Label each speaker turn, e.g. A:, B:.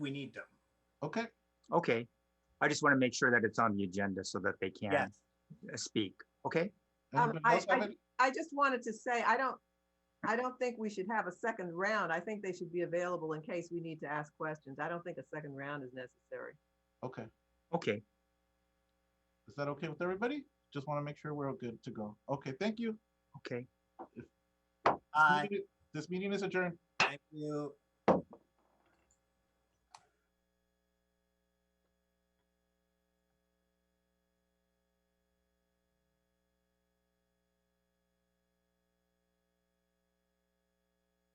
A: we need them.
B: Okay,
C: Okay, I just want to make sure that it's on the agenda so that they can
A: Yes.
C: uh, speak, okay?
D: Um,
B: anybody
D: I-
B: else have
D: I-
B: any?
D: I just wanted to say, I don't, I don't think we should have a second round. I think they should be available in case we need to ask questions. I don't think a second round is necessary.
B: Okay,
C: Okay,
B: is that okay with everybody? Just want to make sure we're all good to go. Okay, thank you.
C: okay.
A: Uh,
B: This meeting is adjourned.
A: thank you.